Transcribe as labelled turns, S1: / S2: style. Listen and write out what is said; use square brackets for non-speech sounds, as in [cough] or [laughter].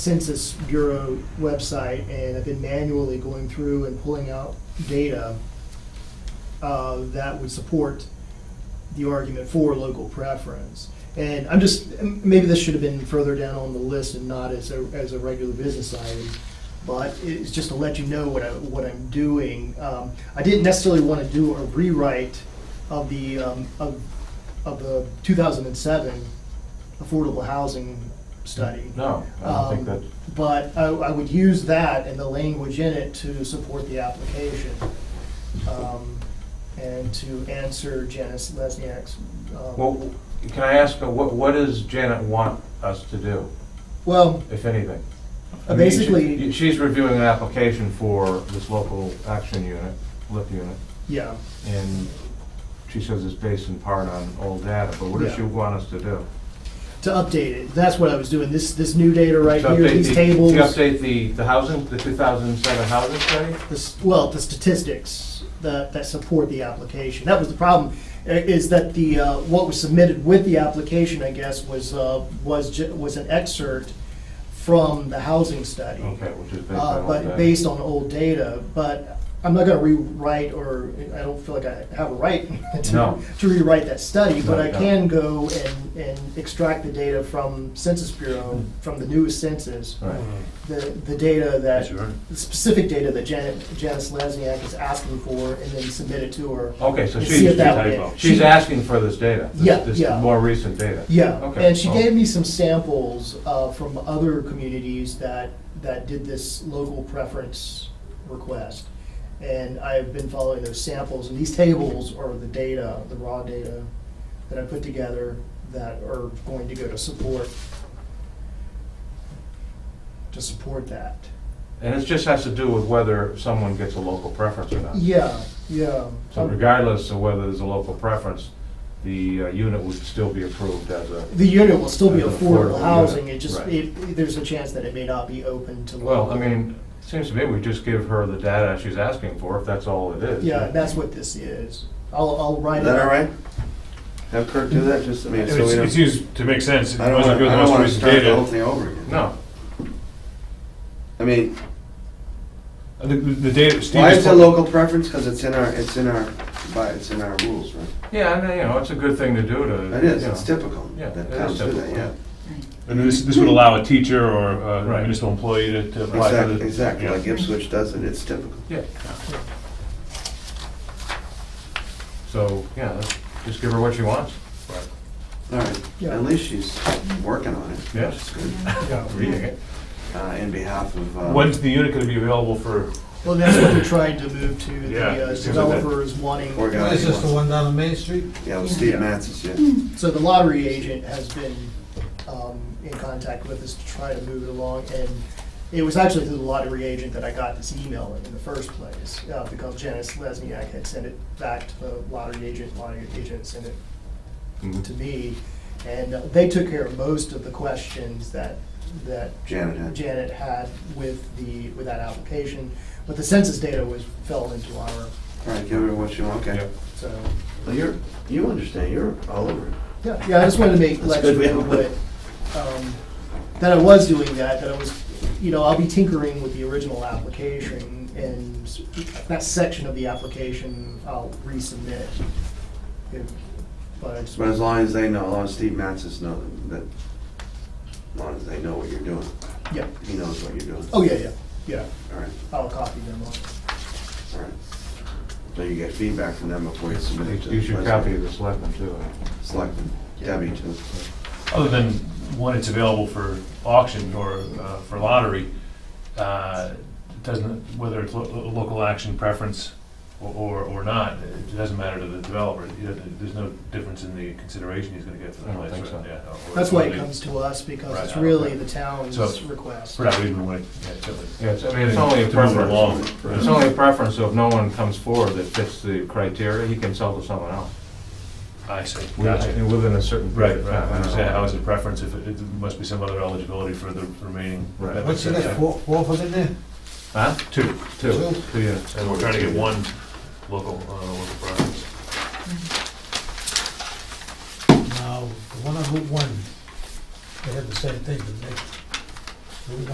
S1: Census Bureau website, and I've been manually going through and pulling out data uh, that would support the argument for local preference. And I'm just, m- maybe this should have been further down on the list and not as a, as a regular business item, but it's just to let you know what I, what I'm doing. Um, I didn't necessarily want to do a rewrite of the, um, of, of the 2007 affordable housing study.
S2: No, I don't think
S1: Um,
S2: that,
S1: But I, I would use that and the language in it to support the application. um, And to answer Janice Lesniak's. um,
S2: well, can I ask, uh, what, what does Janet want us to do,
S1: Well,
S2: if anything?
S1: uh,
S2: I mean, she-
S1: basically,
S2: She's reviewing an application for this local action unit, LIP unit,
S1: yeah,
S2: and she says it's based in part on old data, but what does she
S1: Yeah.
S2: want us to do?
S1: to update it. That's what I was doing. This, this new data right
S2: To
S1: here,
S2: update
S1: these
S2: the-
S1: tables.
S2: To update the, the housing, the 2007 housing study?
S1: the s- well, the statistics that, that support the application. That was the problem, i- is that the, uh, what was submitted with the application, I guess, was, uh, was, ju- was an excerpt from the housing study.
S2: Okay, which is based
S1: Uh,
S2: on old data.
S1: but based on old data, but I'm not gonna rewrite, or I don't feel like I have a right [laughs] to,
S2: No.
S1: to rewrite that study, but
S2: No,
S1: I
S2: no.
S1: can go and, and extract the data from Census Bureau, from the newest census,
S2: Right.
S1: the, the data that,
S3: Sure.
S1: the specific data that Janet, Janice Lesniak is asking for, and then submit it to her.
S2: Okay, so
S1: and see if
S2: she's,
S1: that
S3: she's-
S1: way-
S2: she's
S1: she-
S2: asking for this data, this-
S1: Yeah, yeah.
S2: this more recent data?
S1: Yeah,
S2: Okay, Oh.
S1: and she
S2: well-
S1: gave me some samples uh, from other communities that, that did this local preference request. And I've been following those samples, and these tables are the data, the raw data that I put together that are going to go to support, to support that.
S2: And it just has to do with whether someone gets a local preference or not.
S1: Yeah, yeah.
S2: So regardless of whether there's a local preference, the uh, unit would still be approved as a,
S1: The unit will still be
S2: As an affordable
S1: affordable
S2: unit,
S1: housing, it just,
S2: right.
S1: it, there's a chance that it may not be open to.
S2: well, I
S1: local.
S2: mean, it seems to me we just give her the data she's asking for, if that's all it is.
S1: Yeah, that's what this is. I'll, I'll write
S3: Is
S1: it.
S3: that
S1: up.
S3: all right? Have Kirk do that, just, I mean,
S4: It's,
S3: so we
S4: it's
S3: don't,
S4: used to make sense, it
S3: I don't
S4: wasn't
S3: wanna,
S4: good
S3: I
S4: the
S3: don't
S4: most
S3: wanna
S4: recent
S3: start the whole
S4: data.
S3: thing over again.
S2: No,
S3: I mean,
S4: Uh, The, the data, Steve.
S3: why
S4: is
S3: is it
S4: put-
S3: local preference? Cause it's in our, it's in our, by, it's in our rules, right?
S2: yeah, and, uh, you know, it's a good thing to do to.
S3: It is,
S2: you know.
S3: it's typical.
S2: Yeah,
S3: that
S2: it is
S3: towns do that,
S2: typical.
S3: yeah.
S4: And this, this would allow a teacher or a
S2: Right.
S4: municipal employee to- to apply for
S3: Exactly,
S4: the.
S3: exactly,
S4: yeah.
S3: like Ipswich does it, it's typical.
S2: Yeah. So, yeah, let's just give her what she wants.
S3: All right,
S1: Yeah.
S3: at least she's working on it.
S2: Yes, reading it.
S3: Uh, in behalf of, uh,
S4: When's the unit gonna be available for,
S1: Well, that's what they're trying to move to,
S4: Yeah,
S1: the uh,
S4: it seems like that-
S1: developer is wanting,
S3: poor guy.
S5: What is
S3: he
S5: this, the
S3: wants-
S5: one down on Main Street?
S3: Yeah, well,
S6: Yeah.
S3: Steve Matzis, yeah.
S1: so the lottery agent has been um, in contact with us to try to move it along, and it was actually through the lottery agent that I got this email in the first place, uh, because Janice Lesniak had sent it back to the lottery agent, lottery agent sent it to
S2: Mhm.
S1: me, and uh, they took care of most of the questions that, that
S3: Janet had.
S1: Janet had with the, with that application, but the census data was, fell into our,
S3: All right, give her what you want, okay?
S2: Yep.
S1: so,
S3: Well, you're, you understand, you're all over it.
S1: yeah, yeah, I just wanted to make,
S3: That's
S1: let
S3: good,
S1: you
S3: we
S1: know
S3: have a-
S1: that, um, that I was doing that, that I was, you know, I'll be tinkering with the original application, and s- that section of the application I'll resubmit. If- But I just,
S3: But as long as they know, as long as Steve Matzis know that, as long as they know what you're doing,
S1: yeah,
S3: he knows what you're doing.
S1: oh, yeah, yeah, yeah,
S3: All right,
S1: I'll copy them on.
S3: all right. So you get feedback from them before you submit it to the
S2: You should copy
S3: president.
S2: the selectmen too.
S3: Selectmen, Debbie too.
S4: other than when it's available for auction or uh, for lottery, uh, it doesn't, whether it's lo- lo- local action preference or- or, or not, it doesn't matter to the developer. You know, There's no difference in the consideration he's gonna get
S2: I
S4: for the
S2: don't
S4: place.
S2: think
S4: right?
S2: so.
S4: Yeah, or-
S1: That's why
S4: or
S1: it
S4: the-
S1: comes to us, because it's
S4: Right.
S1: really the town's
S4: So-
S1: request.
S4: For that reason, wait, yeah, certainly.
S2: Yeah, it's, I mean, it's only a
S4: To move it
S2: preference.
S4: along.
S2: It's only a preference, so if no one comes forward that fits the criteria, he can sell to someone else.
S4: I see. Gotcha.
S2: Within within a certain
S4: Right,
S2: period of
S4: right,
S2: time.
S4: I
S2: don't know.
S4: understand, how is it preference, if it, it must be some other eligibility for the remaining.
S2: Right.
S4: benefits,
S5: What's in
S4: yeah.
S5: there, four, four of them in there?
S2: Huh?
S4: Two,
S2: Two,
S5: Two.
S2: two units.
S4: and we're trying to get one local, uh, local preference.
S5: Now, the one on Route One, they had the same thing, didn't they? Route